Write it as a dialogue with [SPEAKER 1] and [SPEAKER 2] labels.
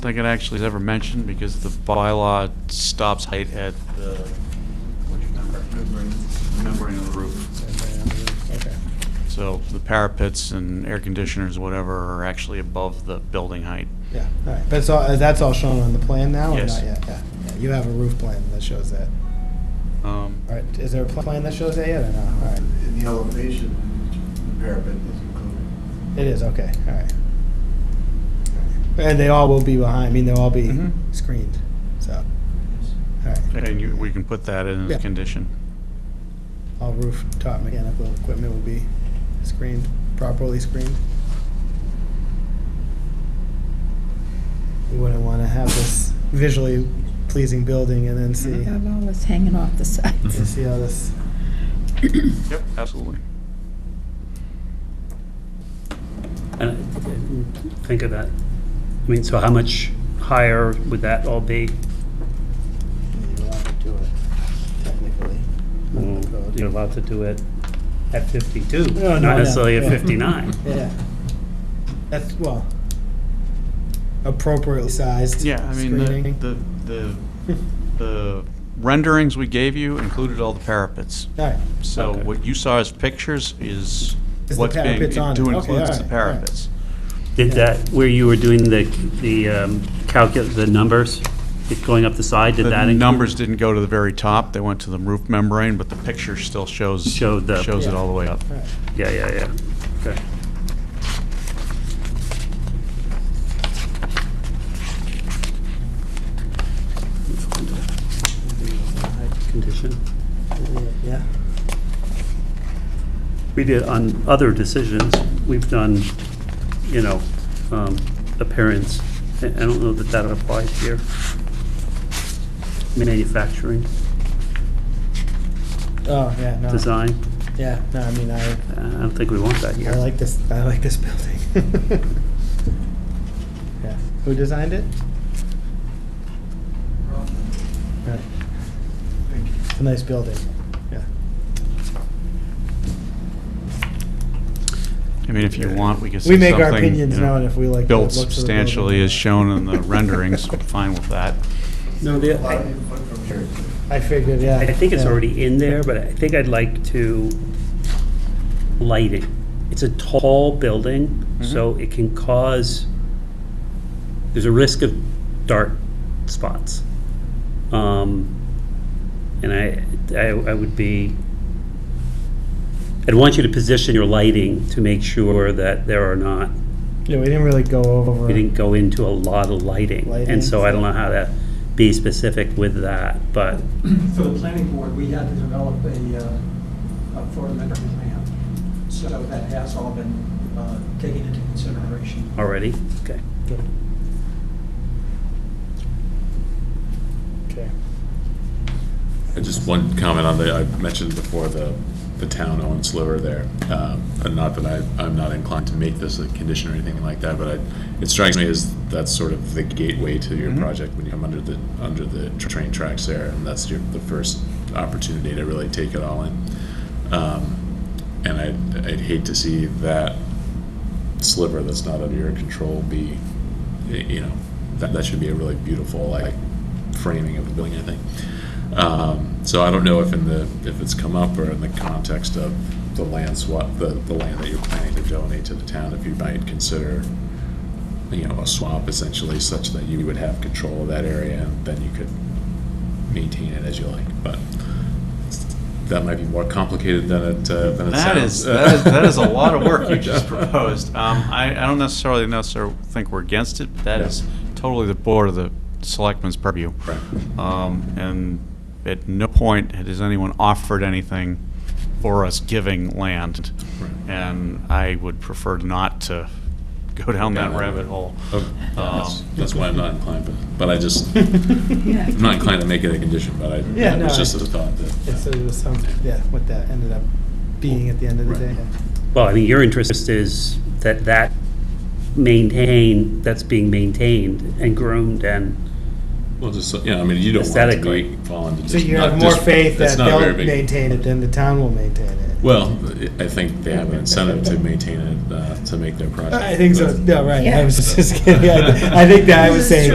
[SPEAKER 1] think it actually is ever mentioned because the bylaw stops height at the, which member? Membrane of the roof.
[SPEAKER 2] Okay.
[SPEAKER 1] So the parapets and air conditioners, whatever, are actually above the building height.
[SPEAKER 2] Yeah, all right. But it's all, that's all shown on the plan now, or
[SPEAKER 1] Yes.
[SPEAKER 2] not yet? Yeah, yeah. You have a roof plan that shows that.
[SPEAKER 1] Um,
[SPEAKER 2] All right, is there a pl- plan that shows that yet, or no? All right,
[SPEAKER 3] In the elevation, the parapet is included.
[SPEAKER 2] it is, okay, all right. And they all will be behind, I mean, they'll all be
[SPEAKER 1] Mhm.
[SPEAKER 2] screened, so, all right.
[SPEAKER 1] And you, we can put that in as
[SPEAKER 2] Yeah.
[SPEAKER 1] a condition.
[SPEAKER 2] All rooftop mechanical equipment will be screened, properly screened. We wouldn't want to have this visually pleasing building and then see, Mm-hmm.
[SPEAKER 4] Got all this hanging off the sides.
[SPEAKER 2] see how this,
[SPEAKER 1] Yep, absolutely.
[SPEAKER 5] And I think of that. I mean, so how much higher would that all be?
[SPEAKER 2] you're allowed to do it technically.
[SPEAKER 5] Well, You're allowed to do it at 52,
[SPEAKER 2] Mm. Oh, No, no, no,
[SPEAKER 5] not necessarily at
[SPEAKER 2] yeah.
[SPEAKER 5] 59.
[SPEAKER 2] Yeah. That's, well, appropriately sized.
[SPEAKER 1] Yeah, I mean,
[SPEAKER 2] screening.
[SPEAKER 1] the, the, the- the renderings we gave you included all the parapets.
[SPEAKER 2] All right,
[SPEAKER 1] So
[SPEAKER 5] Okay.
[SPEAKER 1] what you saw as pictures is
[SPEAKER 2] Is the
[SPEAKER 1] what's being,
[SPEAKER 2] parapets on
[SPEAKER 1] to
[SPEAKER 2] it. Okay, all
[SPEAKER 1] includes
[SPEAKER 2] right,
[SPEAKER 1] the
[SPEAKER 2] all right.
[SPEAKER 1] parapets.
[SPEAKER 5] Did that, where you were doing the, the um, calcul, the numbers, it going up the side, did that
[SPEAKER 1] The
[SPEAKER 5] include?
[SPEAKER 1] numbers didn't go to the very top, they went to the roof membrane, but the picture still shows,
[SPEAKER 5] Showed the-
[SPEAKER 1] shows it all the way up.
[SPEAKER 2] all right.
[SPEAKER 5] Yeah, yeah, yeah. Okay. Condition.
[SPEAKER 2] Yeah,
[SPEAKER 5] We did, on other decisions, we've done, you know, um, appearance. I I don't know that that applies here. Manufacturing,
[SPEAKER 2] oh, yeah, no.
[SPEAKER 5] design,
[SPEAKER 2] Yeah, no, I mean, I,
[SPEAKER 5] I don't think we want that
[SPEAKER 2] I
[SPEAKER 5] here.
[SPEAKER 2] like this, I like this building. Yeah. Who designed it? Right.
[SPEAKER 3] Thank you.
[SPEAKER 2] It's a nice building, yeah.
[SPEAKER 1] I mean, if you want, we could say
[SPEAKER 2] We
[SPEAKER 1] something.
[SPEAKER 2] make our opinions
[SPEAKER 1] you know,
[SPEAKER 2] known if we like the
[SPEAKER 1] Built
[SPEAKER 2] looks of the building.
[SPEAKER 1] substantially as shown in the renderings, fine with that.
[SPEAKER 2] No,
[SPEAKER 3] Lot
[SPEAKER 2] the,
[SPEAKER 3] of input from here.
[SPEAKER 2] I figured, yeah.
[SPEAKER 5] I think it's
[SPEAKER 2] yeah.
[SPEAKER 5] already in there, but I think I'd like to light it. It's a tall building,
[SPEAKER 2] Mm-hmm.
[SPEAKER 5] so it can cause, there's a risk of dark spots. Um, And I, I I would be, I'd want you to position your lighting to make sure that there are not,
[SPEAKER 2] Yeah, we didn't really go over.
[SPEAKER 5] we didn't go into a lot of lighting.
[SPEAKER 2] Lighting,
[SPEAKER 5] And so I don't
[SPEAKER 2] so-
[SPEAKER 5] know how to be specific with that, but
[SPEAKER 6] For the planning board, we had to develop a, uh, a photometric plan. So that has all been uh, taken into consideration.
[SPEAKER 5] already, okay.
[SPEAKER 2] Good. Okay.
[SPEAKER 7] And Just one comment on the, I mentioned before the, the town owned sliver there. Um, And not that I, I'm not inclined to make this a condition or anything like that, but I, it strikes me as that's sort of the gateway to your
[SPEAKER 1] Mhm.
[SPEAKER 7] project when you come under the, under the tr- train tracks there. And that's your, the first opportunity to really take it all in. Um, And I'd, I'd hate to see that sliver that's not under your control be, y- you know, that, that should be a really beautiful, like, framing of the building, I think. Um, so I don't know if in the, if it's come up or in the context of the land swap, the, the land that you're planning to donate to the town, if you might consider, you know, a swap essentially such that you would have control of that area and then you could maintain it as you like, but that might be more complicated than it, uh, than it
[SPEAKER 1] That is,
[SPEAKER 7] sounds.
[SPEAKER 1] that is, that is a lot of work you just proposed. Um, I, I don't necessarily, necessarily think we're against it, but that
[SPEAKER 7] Yeah.
[SPEAKER 1] is totally the board of the selectmen's purview.
[SPEAKER 7] Right.
[SPEAKER 1] Um, and at no point has anyone offered anything for us giving land.
[SPEAKER 7] Right.
[SPEAKER 1] And I would prefer not to go down that
[SPEAKER 7] Yeah.
[SPEAKER 1] rabbit hole. Um,
[SPEAKER 7] Oh, That's that's why I'm not inclined, but, but I just, I'm
[SPEAKER 4] Yeah.
[SPEAKER 7] not inclined to make it a condition, but I,
[SPEAKER 2] Yeah,
[SPEAKER 7] it
[SPEAKER 2] no,
[SPEAKER 7] was
[SPEAKER 2] I-
[SPEAKER 7] just a thought that.
[SPEAKER 2] Yeah, so there was some, yeah, what that ended up being at the end of the day.
[SPEAKER 7] Right.
[SPEAKER 5] Well, I mean, your interest is that that maintain, that's being maintained and groomed and,
[SPEAKER 7] Well, just, so- yeah, I mean, you don't want it to
[SPEAKER 5] Aesthetically.
[SPEAKER 7] be fall into.
[SPEAKER 2] So
[SPEAKER 7] dis-
[SPEAKER 2] you
[SPEAKER 7] not
[SPEAKER 2] have more
[SPEAKER 7] dis-
[SPEAKER 2] faith
[SPEAKER 7] that's
[SPEAKER 2] that
[SPEAKER 7] not a
[SPEAKER 2] they'll
[SPEAKER 7] very big-
[SPEAKER 2] maintain it than the town will maintain it.
[SPEAKER 7] Well, I think they have an incentive to maintain it, uh, to make their project.
[SPEAKER 2] I think so,
[SPEAKER 7] That's-
[SPEAKER 2] no, right, I
[SPEAKER 4] Yeah.
[SPEAKER 2] was just kidding, I I think that I was saying